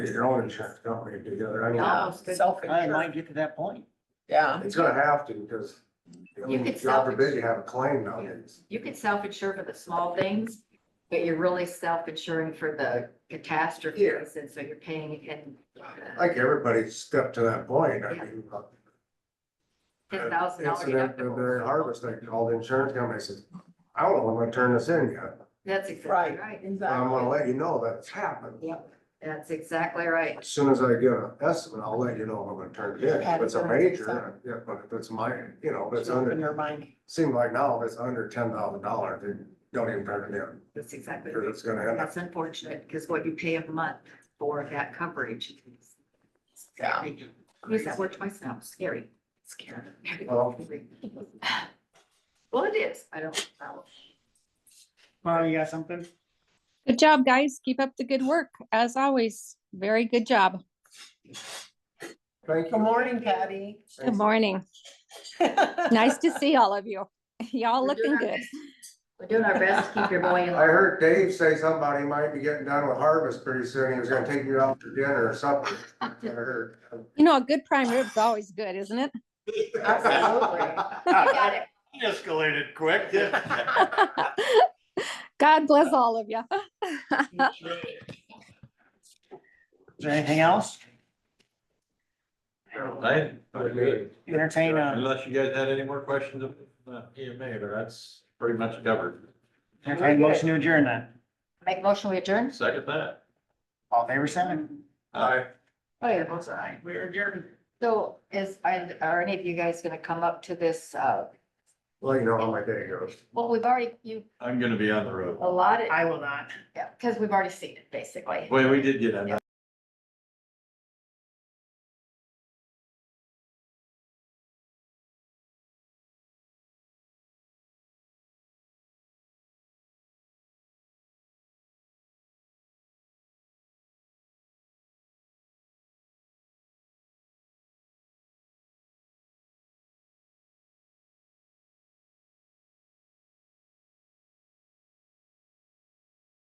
get your own insurance company together, I mean, No, Yeah. self-insured. I might get to that point. Oh, Yeah, it's gonna have to, because. you You know, could God sell- forbid you have a claim nowadays. You could self-insure for the small things, but you're really self-insuring for the catastrophes, and so you're paying in uh, Like everybody's stepped to that point, I Yeah. mean. uh, ten thousand dollar Incident of the deductible. harvest, I called the insurance company, I says, I don't know, if I'm gonna turn this in yet, That's exactly right, right. but I'm gonna exactly. let you know that it's happened. Yep, that's exactly right. As soon as I get an estimate, I'll let you know if I'm gonna turn it in, if it's a major, yeah, but if it's my, you know, if it's Just Open under, your mind. seem like now, if it's under ten thousand dollars, then don't even turn it in. That's exactly Because right. it's gonna end up, That's unfortunate, because what you pay a month for that coverage. is Yeah. scary. Use that word twice now, scary, scary. well, Well, it is, I don't know. Mara, you got something? Good job, guys. Keep up the good work. As always, very good job. thank you. Good morning, Patty. Good morning. Nice to see all of you. We're Y'all doing looking our good. We're doing our best to keep your boy in. I heard Dave say somebody might be getting done with harvest pretty soon, he was gonna take you out to dinner or something, I heard. You know, a good prime rib's always good, isn't it? You got it. Escalated quick. God bless all of you. Is there anything else? I, Entertain a, unless you guys had any more questions of uh, EMA, but that's pretty much covered. entertain a motion to adjourn then. Make motion we adjourn? Second that. All in favor seven. Aye. Oh, yeah. Both sides. We're adjourned. So is, and are any of you guys gonna come up to this, uh, Well, you know how my day goes. well, we've already, you I'm gonna be on the road. allotted, I will not. yeah, because we've already seen it, basically. Wait, we did get on that.